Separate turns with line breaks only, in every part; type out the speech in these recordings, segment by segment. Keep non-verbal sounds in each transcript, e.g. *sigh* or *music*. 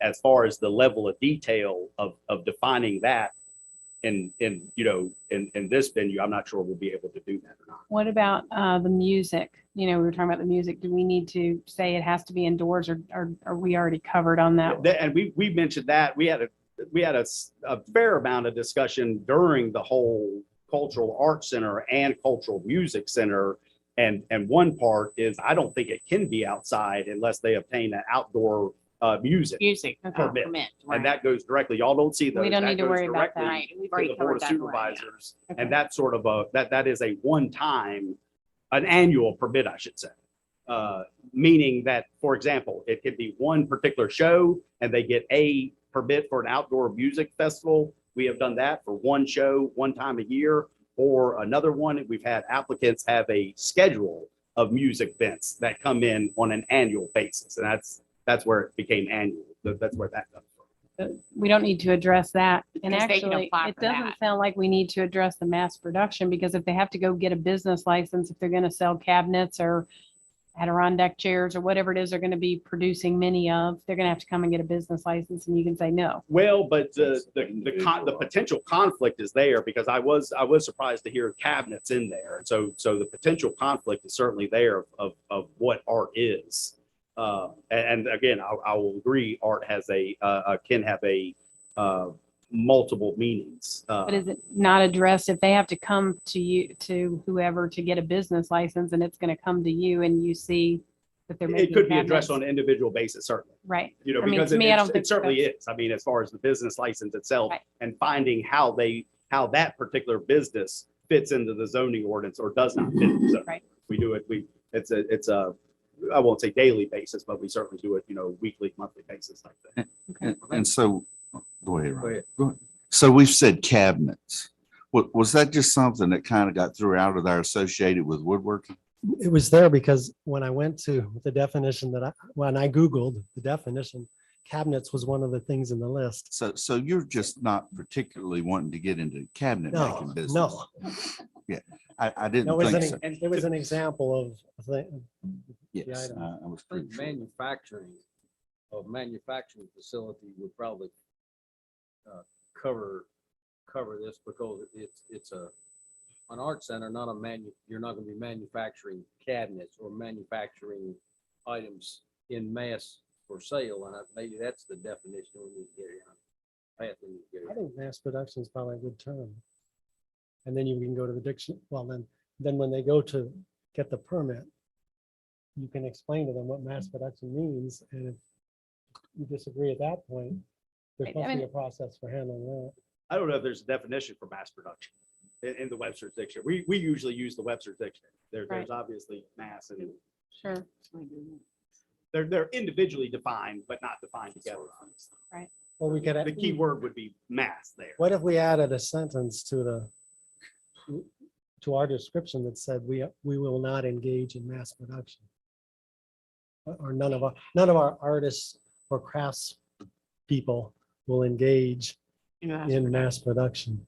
as far as the level of detail of, of defining that in, in, you know, in, in this venue, I'm not sure we'll be able to do that or not.
What about uh, the music? You know, we were talking about the music. Do we need to say it has to be indoors or or are we already covered on that?
That- And we, we mentioned that, we had a, we had a, s- a fair amount of discussion during the whole Cultural Arts Center and Cultural Music Center. And, and one part is, I don't think it can be outside unless they obtain an outdoor, uh, music.
music uh,
Okay.
Permit.
permit.
And
right.
that goes directly, y'all don't see those.
We don't
That
need to
goes
worry about
directly
that.
Right, we've
to
already
the board
covered
of
that. one, yeah.
supervisors.
Okay.
And that's sort of a, that, that is a one-time, an annual permit, I should say. Uh, Meaning that, for example, it could be one particular show and they get a permit for an outdoor music festival. We have done that for one show, one time a year, or another one. We've had applicants have a schedule of music events that come in on an annual basis. And that's, that's where it became annual. That- That's where that comes from.
We don't need to address that. And
Because they can
actually,
apply
it
for
doesn't
that.
sound like we need to address the mass production because if they have to go get a business license, if they're going to sell cabinets or Adirondack chairs or whatever it is they're going to be producing many of, they're going to have to come and get a business license and you can say no.
Well, but the,
That's
the, the con, the
individual.
potential conflict is there because I was, I was surprised to hear cabinets in there. And so, so the potential conflict is certainly there of, of what art is. Uh, and, and again, I, I will agree, art has a, uh, uh, can have a, uh, multiple meanings. Uh,
But is it not addressed if they have to come to you, to whoever to get a business license and it's going to come to you and you see that they're making
It could be addressed
cabinets?
on an individual basis, certainly.
Right.
you know,
I mean,
because
to
it
me, I
it's-
don't
it
think
certainly is. I mean, as far as the business license itself
Right.
and finding how they, how that particular business fits into the zoning ordinance or does not fit. in the zoning.
Right.
We do it, we, it's a, it's a, I won't say daily basis, but we certainly do it, you know, weekly, monthly basis like that.
And, and so, go ahead, Ron.
ahead.
Go ahead. So we've said cabinets. Wa- was that just something that kind of got thrown out of there associated with woodworking?
it was there because when I went to the definition that I, when I Googled the definition, cabinets was one of the things in the list.
So, so you're just not particularly wanting to get into cabinet making
No,
business?
no,
I, I
that
didn't
was
think so.
an, it was an example of, a thing.
Yes,
item.
I I was
I think
pretty sure.
manufacturing, a manufacturing facility would probably uh, cover, cover this because it's, it's a, an art center, not a manu, you're not gonna be manufacturing cabinets or manufacturing items in mass for sale, and I- maybe that's the definition we need to get on. Path we need to get
I
on.
think mass production is probably a good term. And then you can go to the diction, well, then, then when they go to get the permit, you can explain to them what mass production means, and if you disagree at that point, there's
I- I
supposed to be
mean-
a process for handling that.
I don't know if there's a definition for mass production in, in the Webster's dictionary. We, we usually use the Webster's dictionary. There, there's
Right.
obviously mass and
Sure.
they're, they're individually defined, but not defined together. obviously.
Well, we could.
The
add-
key word would be mass there.
What if we added a sentence to the, to our description that said, we, we will not engage in mass production? Or- Or none of our, none of our artists or crafts people will engage in mass production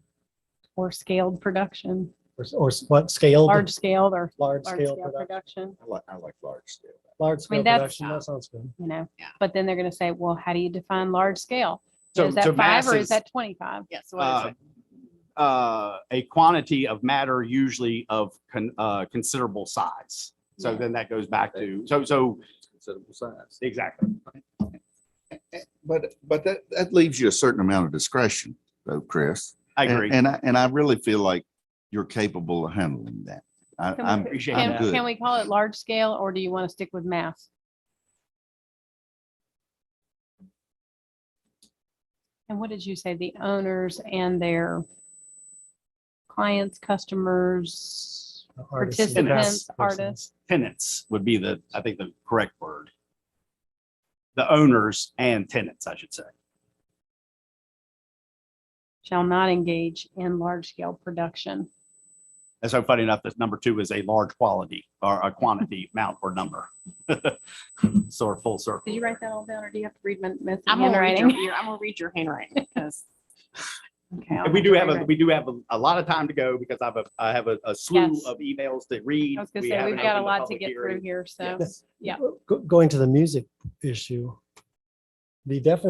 Or scaled production,
or, s- or s- what scale?
large scale or large
Large scale
scale
production,
production,
I like, I like large scale.
large
I mean,
scale
that's-
production, that sounds good.
you know?
Yeah.
But then they're going to say, well, how do you define large scale?
So-
Is
so
that
mass
five or is that 25?
Yes, what
uh,
is it?
uh, a quantity of matter usually of con- uh, considerable size. So then that goes back to, so, so,
It's Considerable size.
exactly.
But, but that, that leaves you a certain amount of discretion though, Chris.
I
And-
agree.
And I, and I really feel like you're capable of handling that. I,
Can we-
I'm,
Appreciate
I'm
that.
Can,
good.
can we call it large scale or do you want to stick with mass? And what did you say? The owners and their clients, customers,
Artists
Participants,
and crafts persons.
artists.
Tenants would be the, I think, the correct word. The owners and tenants, I should say.
shall not engage in large scale production.
And so funny enough, this number two is a large quality or a quantity, amount or number. *laughs* So full circle.
Did you write that all down or do you have to read my my
I'm gonna read your,
handwriting?
your- I'm gonna read your handwriting, because
Okay, I'll
And we do have, a
to
we do have a- a lot of time to go because I have a, I have a a slew
Yes.
of emails to read.
read. *laughs* I was gonna
We
say,
haven't
we've got a
opened the
lot to
public
get
hearing.
through here, so.
Yes.
Yeah.
Go- Going to the music issue, the definition